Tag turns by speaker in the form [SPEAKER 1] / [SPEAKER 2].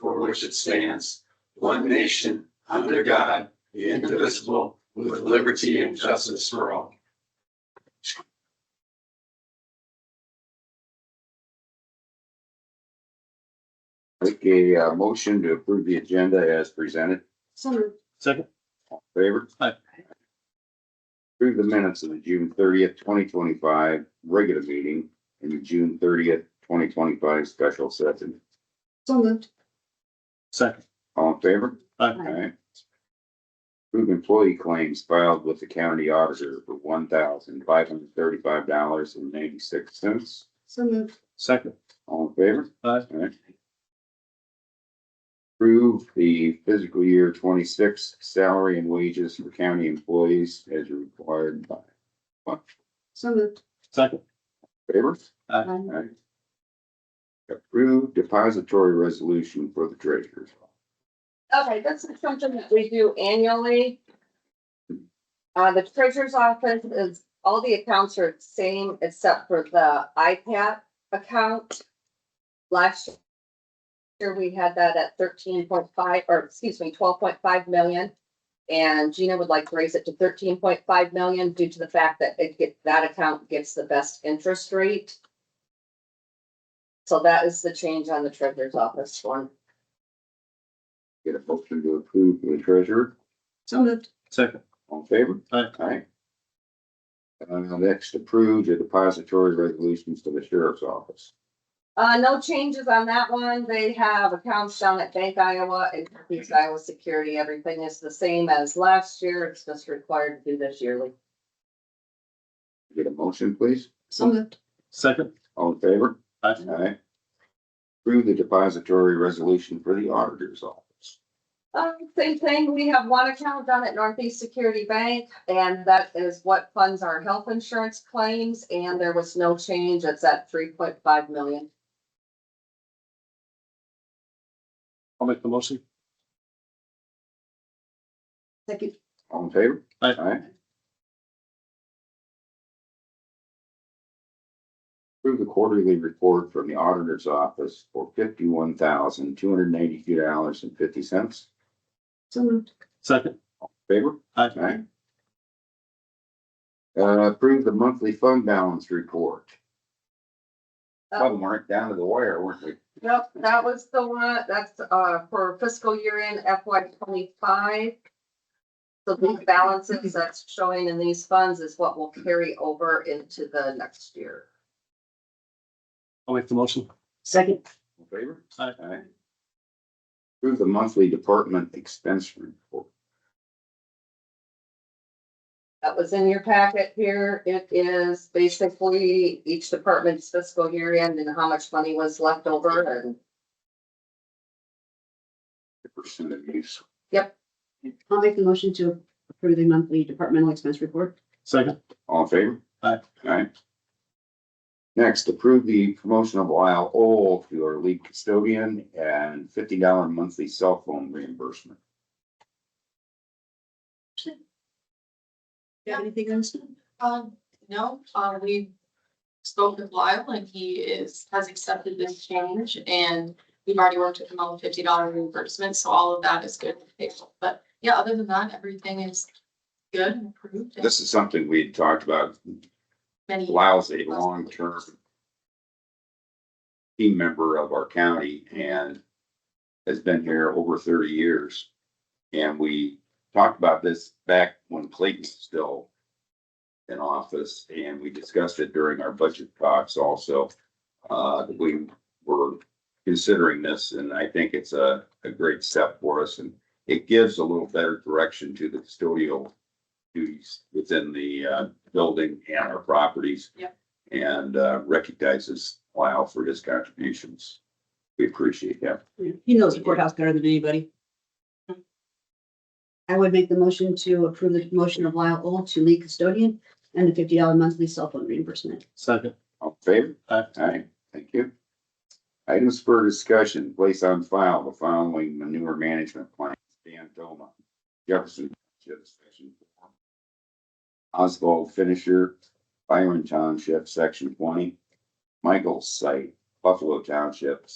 [SPEAKER 1] which it stands, one nation, under God, indivisible, with liberty and justice for all.
[SPEAKER 2] Make a uh, motion to approve the agenda as presented.
[SPEAKER 3] So
[SPEAKER 4] Second.
[SPEAKER 2] All in Favor?
[SPEAKER 4] Aye.
[SPEAKER 2] Approve the minutes of the June thirtieth, twenty twenty-five regular meeting and the June thirtieth, twenty twenty-five special session.
[SPEAKER 3] so moved.
[SPEAKER 4] Second.
[SPEAKER 2] All in favor?
[SPEAKER 4] Aye.
[SPEAKER 2] Alright. Approve employee claims filed with the county auditor for one thousand five hundred thirty-five dollars and ninety-six cents.
[SPEAKER 3] So moved.
[SPEAKER 4] Second.
[SPEAKER 2] All in favor?
[SPEAKER 4] Aye.
[SPEAKER 2] Alright. Approve the fiscal year twenty-six salary and wages for county employees as required by
[SPEAKER 3] So moved.
[SPEAKER 4] Second.
[SPEAKER 2] favor.
[SPEAKER 3] Aye.
[SPEAKER 2] Alright. Approve depository resolution for the treasurer's.
[SPEAKER 5] Okay, this is something that we do annually. Uh, the treasurer's office is, all the accounts are the same except for the iPad account. Last year, we had that at thirteen point five, or excuse me, twelve point five million. And Gina would like to raise it to thirteen point five million due to the fact that it get, that account gets the best interest rate. So that is the change on the treasurer's office one.
[SPEAKER 2] Get a motion to approve for the treasurer.
[SPEAKER 3] So moved.
[SPEAKER 4] Second.
[SPEAKER 2] All in favor?
[SPEAKER 4] Aye.
[SPEAKER 2] Aye. Uh, next, approve the depository resolutions to the sheriff's office.
[SPEAKER 5] Uh, no changes on that one. They have accounts down at Bank Iowa and Northeast Iowa Security. Everything is the same as last year. It's just required to do this yearly.
[SPEAKER 2] Get a motion, please.
[SPEAKER 3] So moved.
[SPEAKER 4] Second.
[SPEAKER 2] All in favor?
[SPEAKER 4] Aye.
[SPEAKER 2] Aye. Approve the depository resolution for the auditor's office.
[SPEAKER 5] Um, same thing. We have one account down at Northeast Security Bank and that is what funds our health insurance claims and there was no change. It's at three point five million.
[SPEAKER 4] I'll make the motion.
[SPEAKER 3] Second.
[SPEAKER 2] All in favor?
[SPEAKER 4] Aye.
[SPEAKER 2] Approve the quarterly report from the auditor's office for fifty-one thousand, two hundred and eighty-two dollars and fifty cents.
[SPEAKER 3] So moved.
[SPEAKER 4] Second.
[SPEAKER 2] Favor?
[SPEAKER 4] Aye.
[SPEAKER 2] Aye. Uh, approve the monthly fund balance report.
[SPEAKER 5] Um, Oh.
[SPEAKER 2] Some weren't down to the wire, weren't we?
[SPEAKER 5] Nope, that was the one, that's, uh, for fiscal year end FY twenty-five. So these balances that's showing in these funds is what will carry over into the next year.
[SPEAKER 4] I'll make the motion.
[SPEAKER 3] Second.
[SPEAKER 2] All in favor?
[SPEAKER 4] Aye.
[SPEAKER 2] Approve the monthly department expense report.
[SPEAKER 5] That was in your packet here. It is basically each department's fiscal year end and how much money was left over and
[SPEAKER 2] The percent of use.
[SPEAKER 3] I'll make the motion to approve the monthly departmental expense report.
[SPEAKER 4] Second.
[SPEAKER 2] All in favor?
[SPEAKER 4] Aye.
[SPEAKER 2] Aye. Next, approve the promotion of Lyle Old to our lead custodian and fifty dollar monthly cell phone reimbursement.
[SPEAKER 3] Do you have anything on this? one?
[SPEAKER 6] Um, no, uh, we spoke with Lyle and he is, has accepted this change and we've already worked with him on the fifty dollar reimbursement, so all of that is good. But yeah, other than that, everything is good and approved. and
[SPEAKER 2] This is something we had talked about.
[SPEAKER 6] Many,
[SPEAKER 2] Lyle's a long-term team member of our county and has been here over thirty years. And we talked about this back when Clayton was still in office, and we discussed it during our budget talks also. Uh, we were considering this, and I think it's a, a great step for us, and it gives a little better direction to the custodial duties within the, uh, building and our properties.
[SPEAKER 6] Yep.
[SPEAKER 2] And, uh, recognizes Lyle for his contributions. We appreciate him.
[SPEAKER 3] He knows the courthouse better than anybody. I would make the motion to approve the motion of Lyle Old to lead custodian and the fifty dollar monthly cell phone reimbursement.
[SPEAKER 4] Second.
[SPEAKER 2] All in favor?
[SPEAKER 4] Aye.
[SPEAKER 2] Aye, thank you. Items for discussion, place on file the following manure management plan, Dan Doma, Jefferson, Township Section Four, Oswald Finisher, Byron Township, section twenty, Michael's site, Buffalo Township,